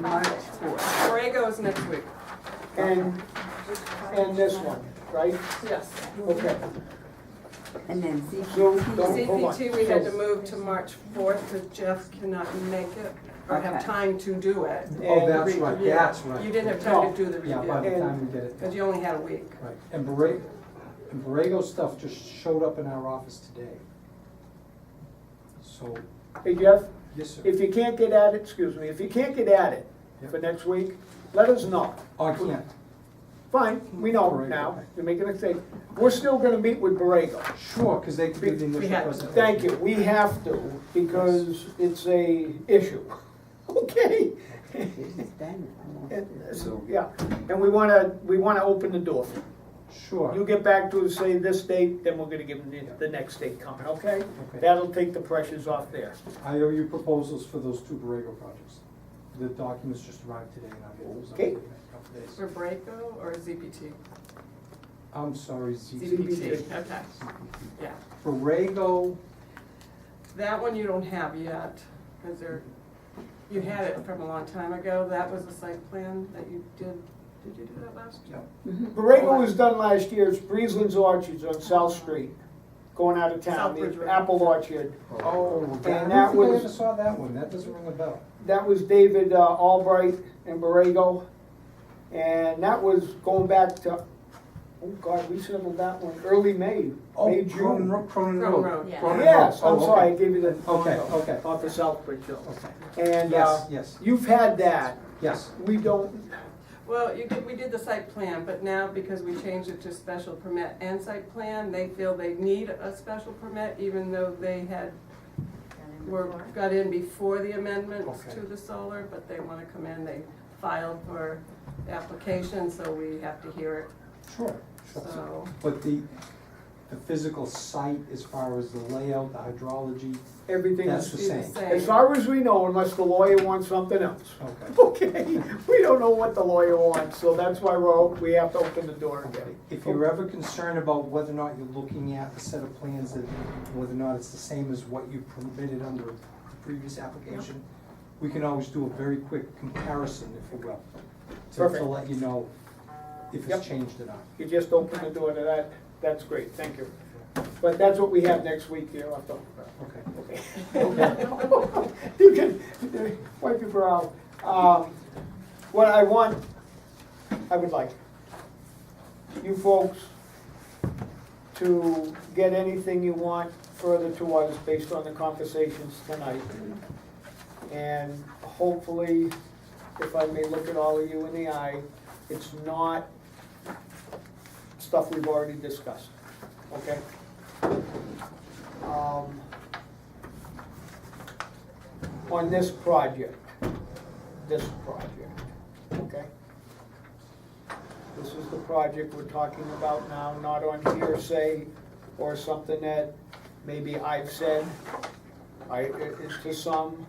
March fourth. Borrego's next week. And, and this one, right? Yes. Okay, And then so, ZPT. don't, hold on. CPT, we had to So- move to March fourth because Jeff cannot make it or have Okay. time to do it. Oh, And that's re- right, yeah. that's right. You didn't have time to do the Yeah, by review the time we did it, because you only had a week. right. And Borrego, and Borrego stuff just showed up in our office today. So, Hey Jeff, yes, sir. if you can't get at it, excuse me, if you can't get at it for next week, let us know. Oh, I can't, Fine, we know Borrego. now, you're making a mistake. We're still gonna meet with Borrego. sure, because they did the We initial had- presentation. Thank you, we have to, because it's a issue, okay? And- Yeah, and we wanna, we wanna open the door. You Sure, get back to us, say this date, then we're gonna give them the, the next date coming, okay? Okay. That'll take the pressures off there. I owe you proposals for those two Borrego projects. The documents just arrived today and I'll get those up Okay. in a couple days. For Borrego or ZPT? I'm sorry, ZT. ZPT, okay, yeah. Borrego, That one you don't have yet because there, you had it from a long time ago. That was a site plan that you did, did you do that last year? yeah, Borrego was done last year, it's Breezeland's Orchards on South Street, going out of town, Southbridge the Road. Apple Orchard. Oh, And and that that was. I was- ever saw that one, that doesn't ring a bell. That was David uh, Albright and Borrego, and that was going back to, oh God, we settled that one, early May, May, Oh, Cronin June. Ro- Cronin Cronin Road. Road. Yeah. Cronin Road. Yes, Oh, I'm okay. sorry, I gave you the. Okay, okay. Off the Southbridge Hill. Okay, And uh, yes, yes, you've had that, yes, we don't, Well, you did, we did the site plan, but now because we changed it to special permit and site plan, they feel they need a special permit even though they had, were, got in before the amendments Okay. to the solar, but they wanna come in, they filed for the application, so we have to hear sure, it, sure. so. But the, the physical site, as far as the layout, the hydrology, everything is, that's the it's the same. same. as far as we know, unless the lawyer wants something else. Okay. Okay, we don't know what the lawyer wants, so that's why we're, op- we have to open the door again. If you're ever concerned about whether or not you're looking at a set of plans that, whether or not it's the same as what you permitted under the previous application, we can always do a very quick comparison, if you will, to, to Perfect. let you know if Yep. it's changed or not. You just open the door to that, that's great, thank you. But that's what we have next week, you don't have to- Okay. okay. You can, wipe your brow. Um, What I want, I would like you folks to get anything you want further to us based on the conversations tonight. And hopefully, if I may look at all of you in the eye, it's not stuff we've already discussed, okay? Um, On this project, this project, okay? This is the project we're talking about now, not on hearsay or something that maybe I've said. I, it- it's to some,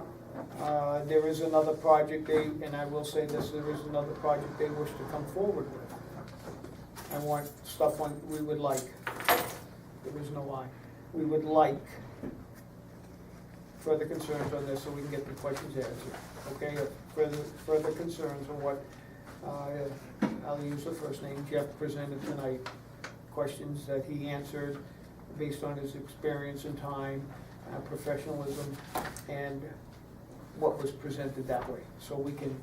uh, there is another project they, and I will say this, there is another project they wish to come forward with. I want stuff on, we would like, there is no I, we would like further concerns on this so we can get the questions answered, okay? If Further, further concerns on what, uh, I'll use the first name, Jeff presented tonight, questions that he answered based on his experience and time, uh, professionalism, and what was presented that way, so we can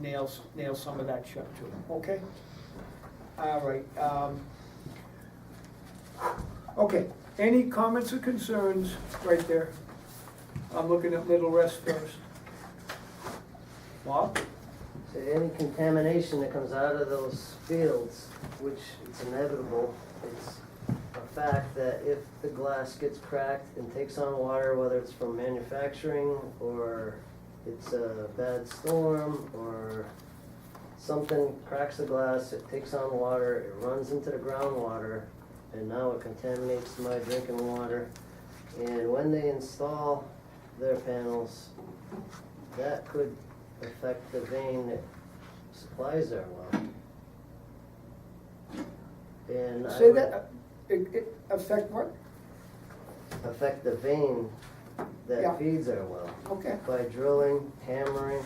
nail, s- nail some of that shut too, okay? All right, um, okay, any comments or concerns right there? I'm looking at Little Rest first. Bob? So any contamination that comes out of those fields, which it's inevitable, it's a fact that if the glass gets cracked and takes on water, whether it's from manufacturing or it's a bad storm or something cracks the glass, it takes on water, it runs into the groundwater, and now it contaminates my drinking water. And when they install their panels, that could affect the vein that supplies our well. And I Say would that, uh, it, it affect what? affect the vein Yeah. that feeds our well Okay, by drilling, hammering,